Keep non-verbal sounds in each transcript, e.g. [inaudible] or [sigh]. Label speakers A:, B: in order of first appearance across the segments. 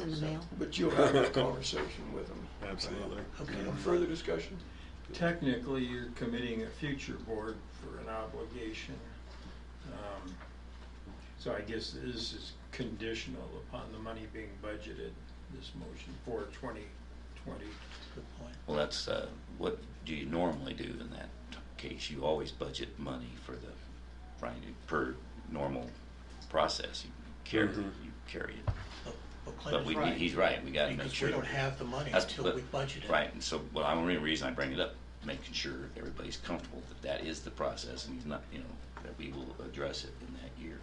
A: in the
B: So,
A: mail.
B: But you'll have a conversation with them.
C: Absolutely.
B: Okay,
C: Yeah.
B: further discussion?
D: Technically, you're committing a future board for an obligation. Um, So I guess this is conditional upon the money being budgeted, this motion for 2020.
B: Good point.
E: Well, that's, uh, what do you normally do in that case? You always budget money for the, right, per normal process. You carry,
C: Mhm.
E: you carry it.
F: But- But
E: But
F: Clint
E: we,
F: is
E: we-
F: right.
E: he's right, we gotta make
F: Because we
E: sure.
F: don't have the money
E: That's-
F: until
E: but-
F: we budget it.
E: Right, and so, well, I'm, the only reason I bring it up, making sure everybody's comfortable that that is the process and he's not, you know, that we will address it in that year.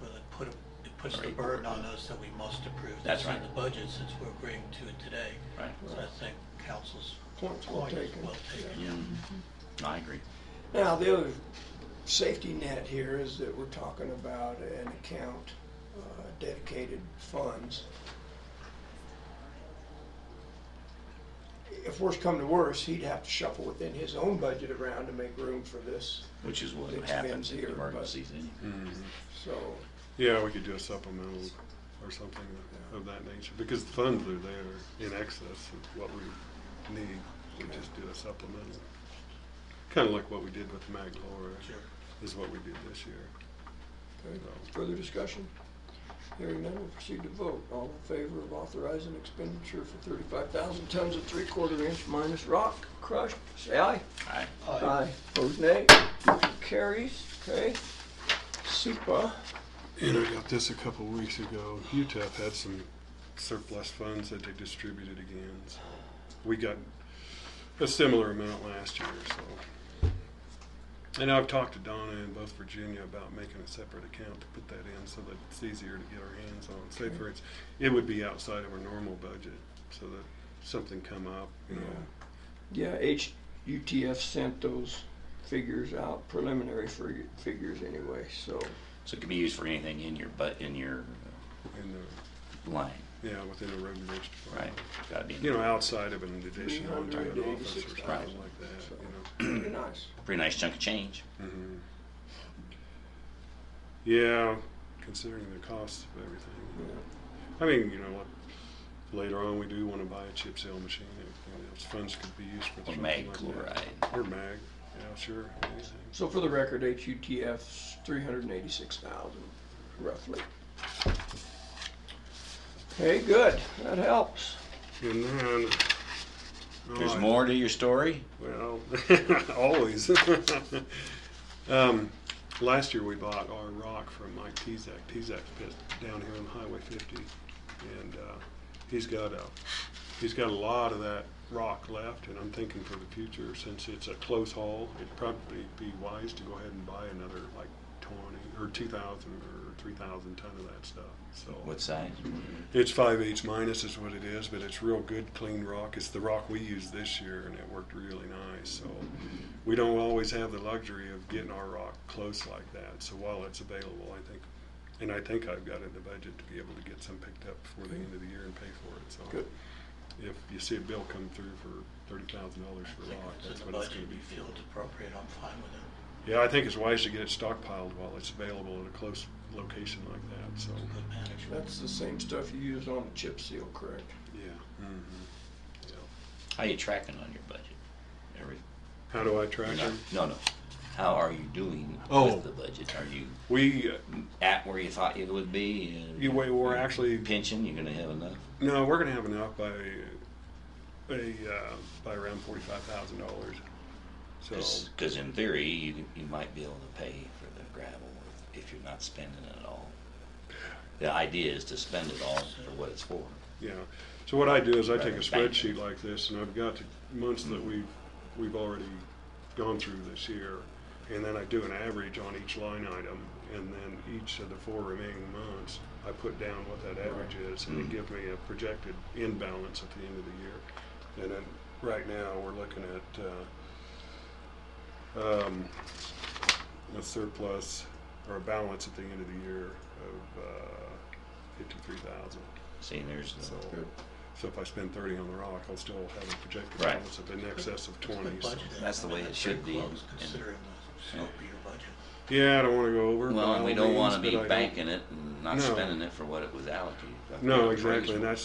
F: Well, it put, a- it puts the
E: Right.
F: burden on us that we must approve
E: That's
F: this in
E: right.
F: the budget since we're agreeing to it today.
E: Right.
F: So I think council's
B: Point's well
F: point is
B: taken.
F: well taken.
E: Yeah, I agree.
B: Now, the other safety net here is that we're talking about an account, uh, dedicated funds. If worse come to worse, he'd have to shuffle within his own budget around to make room for this,
E: Which is what
B: It's
E: happens in
B: been here, but-
E: emergencies anyway.
C: Mhm.
B: so.
C: Yeah, we could do a supplemental or something of that nature, because the funds are there in excess of what we need. We just do a supplemental. Kind of like what we did with Maglore,
F: Sure.
C: is what we did this year.
B: Okay, Further discussion? Hearing none, we'll proceed to vote. All in favor of authorizing expenditure for thirty-five thousand tons of three-quarter inch minus rock crushed, say aye.
E: Aye.
B: Aye. Opposed, nay. Motion carries, okay. SEPA,
C: And I got this a couple weeks ago. UTEP had some surplus funds that they distributed again. So we got a similar amount last year. So, and I've talked to Donna in both Virginia about making a separate account to put that in so that it's easier to get our hands on. Say for instance, it would be outside of our normal budget, so that something come up, you know.
B: yeah, HUTF sent those figures out, preliminary fig- figures anyway, so.
E: So it can be used for anything in your, but in your
C: In the,
E: line,
C: yeah, within a road and bridge department.
E: right? Gotta be,
C: You
E: in-
C: know, outside of an addition onto an office or
B: 386,000.
C: something like that, you know.
B: Pretty nice.
E: pretty nice chunk of change.
C: Mhm. Yeah, considering the cost of everything. I mean, you know what? Later on, we do want to buy a chip sale machine. If, you know, those funds could be used for
E: Or
C: something
E: mag
C: like
E: chloride.
C: That. Or mag. Yeah, sure. Anything.
B: So for the record, HUTF's three hundred and eighty-six thousand, roughly. Okay, good, that helps.
C: And then. oh,
E: There's
C: I-
E: more to your story?
C: Well, [laughs] always. [laughs] um, last year we bought our rock from Mike Tezak. Tezak's pit down here on Highway 50, and uh, he's got a he's got a lot of that rock left. And I'm thinking for the future, since it's a close haul, it'd probably be wise to go ahead and buy another like 20 or 2,000 or 3,000 ton of that stuff. So
E: What size?
C: it's five H minus is what it is, but it's real good, clean rock. It's the rock we used this year, and it worked really nice. So we don't always have the luxury of getting our rock close like that. So while it's available, I think, and I think I've got it in the budget to be able to get some picked up before the end of the year and pay for it. So
B: Good.
C: if you see a bill come through for thirty thousand dollars
F: I
C: for
F: think
C: rock,
F: if it's
C: that's
F: in the
C: what it's going
F: budget,
C: to be
F: you feel it's appropriate, I'm fine with it.
C: for. Yeah, I think it's wise to get it stockpiled while it's available at a close location like that. So
F: Good management.
B: That's the same stuff you used on the chip seal, correct?
C: yeah. hmm Yeah.
E: How you tracking on your budget? Every,
C: How do I track
E: you're
C: it?
E: not, no, no. How are you doing
C: Oh.
E: with the budget? Are you
C: We uh,
E: at where you thought you would be? Uh,
C: You- we- we're actually-
E: Pension, you're gonna have enough?
C: no, we're gonna have enough by by uh, by around forty five thousand dollars. So
E: Cause, 'cause in theory, you, you might be able to pay for the gravel if- if you're not spending it all. The idea is to spend it all for what it's for.
C: yeah. So what I do is I take a
E: Right, thank you.
C: spreadsheet like this, and I've got the months that we've we've already gone through this year, and then I do an average on each line item, and then each of the four remaining months I put down what that average is, and
E: Mm.
C: it gives me a projected in balance at the end of the year. And then right now we're looking at. Uh, um, a surplus or a balance at the end of the year of uh, fifty-three thousand.
E: See, there's
C: So,
E: the,
B: Good.
C: so if I spend thirty on the rock, I'll still have a projected
E: Right.
C: balance of in excess of
F: It's
C: twenty.
F: good
C: so-
F: budgeting.
E: That's the
F: I mean,
E: way it
F: it's
E: should
F: pretty
E: be.
F: close
E: And-
F: Considering the scope of your budget.
C: Yeah, I don't want to go over. by
E: well, we
C: all
E: don't
C: means,
E: wanna
C: but
E: be
C: I don't-
E: banking it and not
C: No.
E: spending it for what it was allocated.
C: No, exactly, and that's